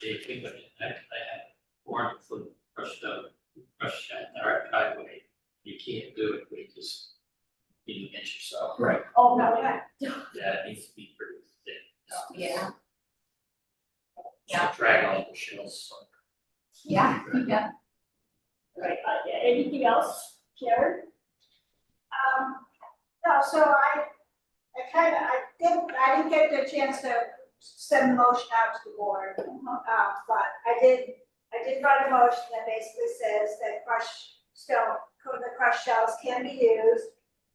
the equipment that I had, four hundred foot crushed out, crushed out our driveway. You can't do it, with just, you inch or so. Right. 哦 Oh, no, yeah, That needs to be pretty thick. Yeah. So Drag all the shells. yeah, yeah. Right, uh, yeah, anything else, Karen? Um, no, so I, I kind of, I didn't, I didn't get the chance to send the motion out to the board. Uh, but I did, I did write a motion that basically says that crush stone, the crushed shells can be used,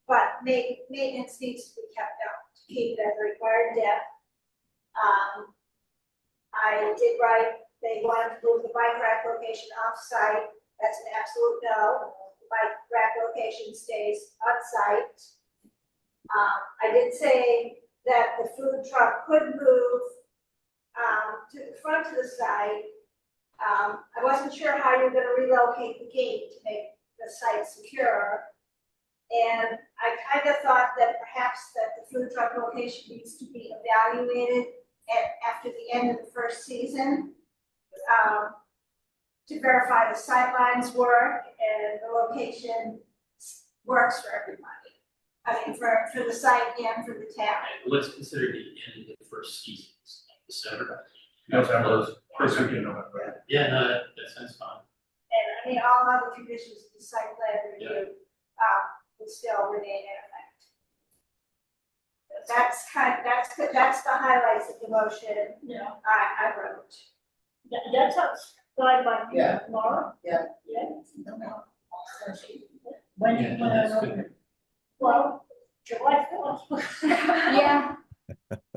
but ma- maintenance needs to be kept up to keep it at the required depth. Um, I did write, they wanted to move the bike rack location off-site that's an absolute no. My rack location stays on site. Um, I did say that the food truck could move, um, to the front of the site. Um, I wasn't sure how you're gonna relocate the gate to make the site secure. And I kind of thought that perhaps that the food truck location needs to be evaluated at, after the end of the first season. Um, to verify the sightlines work and the location s- works for everybody. I mean, for, for the site and for the town. Alright, let's consider the end of the first season, it's like December. That's how it was. First weekend of November. Yeah, no, that, that sounds fine. And I mean, all other conditions of the site plan review, um, would still remain in effect. That's kind, that's, the- that's the highlights of the motion No, I, I wrote. that, that sounds fine by me, Yeah. Laura. Yeah. Yeah. When, Yeah, when I that's know, well, July fourth. Yeah,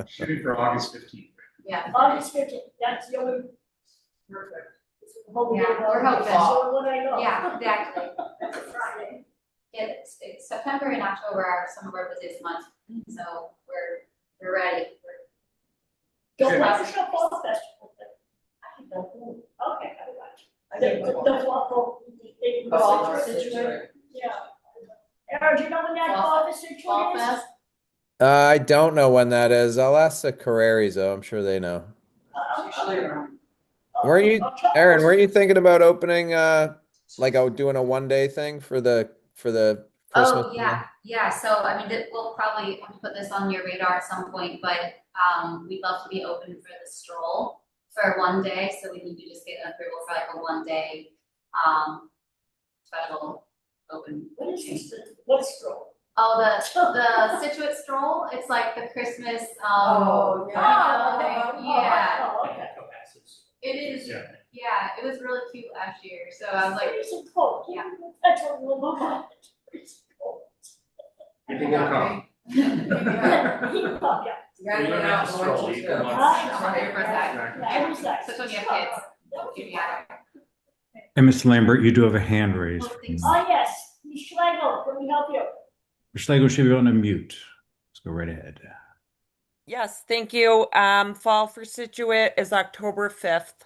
Shooting for August fifteenth. yeah, August fifteenth, that's the only. Perfect. Hopefully, Yeah, we're hoping. so what I know. yeah, exactly. That's Friday. It's, it's September and October are some of our busiest months, so we're, we're ready. We're- The Sure. Waukesha Fall Festival, but I don't know, okay, I got you. The, I think the, we the fall, the, the Fall fall Fest. situation, yeah. Aaron, do you know when that Fall- fall situation is? Fall Fest, Uh, I don't know when that is. I'll ask the Carreras though. I'm sure they know. Uh, Usually around. uh, Were you- October. Aaron, were you thinking about opening uh like oh, doing a one day thing for the for the Christmas? oh, yeah, yeah, so I mean, that- we'll probably have to put this on your radar at some point, but, um, we'd love to be open for the stroll for one day, so we need to just get approval for like a one day, um, special open. What is this, what's wrong? Oh, the, the Situate stroll, it's like the Christmas, um, Oh, yeah. Oh, Yeah. Oh, okay. Cohasset. It is, Yeah. yeah, it was really cute last year, so I was like, It's freezing cold, Yeah. That's a little bit, it's freezing cold. People will come. Yeah, yeah. Yeah, You don't yeah, have to stroll, oranges, you can yeah. walk. Exactly. That was nice. Especially when you have kids. Oh, That was Keep it nice. And Ms. Lambert, you do have a hand raised. Oh, thanks. Oh, yes, Ms. Schlegel, let me help you. Ms. Schlegel should be on a mute. Let's go right ahead. Yes, thank you. Um, fall for Situate is October fifth.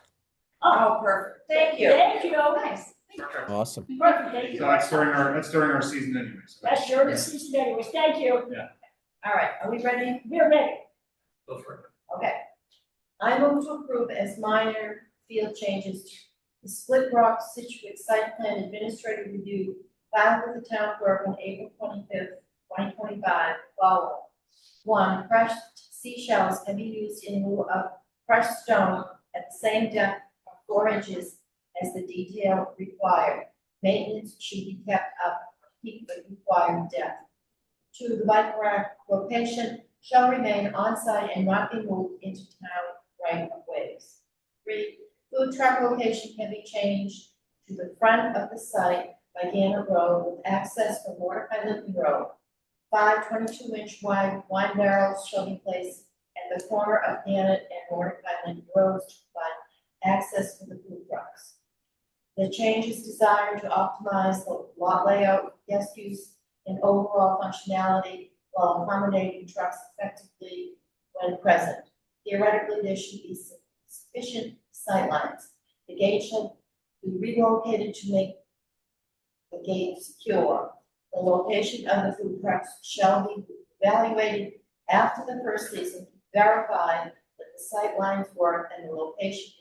Oh, Oh, perfect, thank thank you, you. thank you. Oh, nice. Perfect. Awesome. Perfect, thank So you. that's during our, that's during our season anyway. so- That's your season anyways, thank you. All right, are we ready? We're ready. Go for it. Okay. I move to approve as minor field changes to the Split Rock Situate Site Plan Administrative Review filed with the town clerk on April twenty-fifth, twenty twenty-five, follow. One, crushed seashells can be used in lieu of crushed stone at the same depth of four inches as the detail required. Maintenance should be kept up, to keep the required depth. Two, the bike rack location shall remain on site and not be moved into town right of ways. Three, food truck location can be changed to the front of the site by Gannett Road with access from Mordecai Lippin Road. Five 22 inch wide wine barrels shall be placed at the corner of Gannett and Mordecai Lippin Roads to provide access for the food trucks. The change is desired to optimize the lot layout, guest use, and overall functionality while accommodating trucks effectively when present. Theoretically, there should be su- sufficient sightlines. The gate should be relocated to make the gate secure. The location of the food trucks shall be evaluated after the first season, to verify that the sightlines work and the location